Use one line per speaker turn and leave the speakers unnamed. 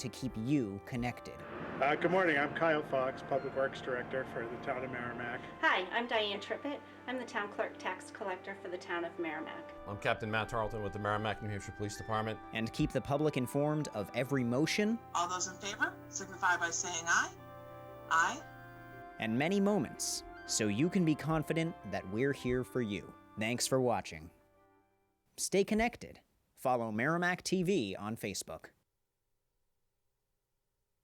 to keep you connected.
Uh, Good morning, I'm Kyle Fox, Public Works Director for the town of Merrimack.
Hi, I'm Diane Trippett. I'm the town clerk tax collector for the town of Merrimack.
I'm Captain Matt Tarleton with the Merrimack, New Hampshire Police Department.
And keep the public informed of every motion
All those in favor signify by saying aye. Aye.
and many moments so you can be confident that we're here for you. Thanks for watching. Stay connected. Follow Merrimack TV on Facebook.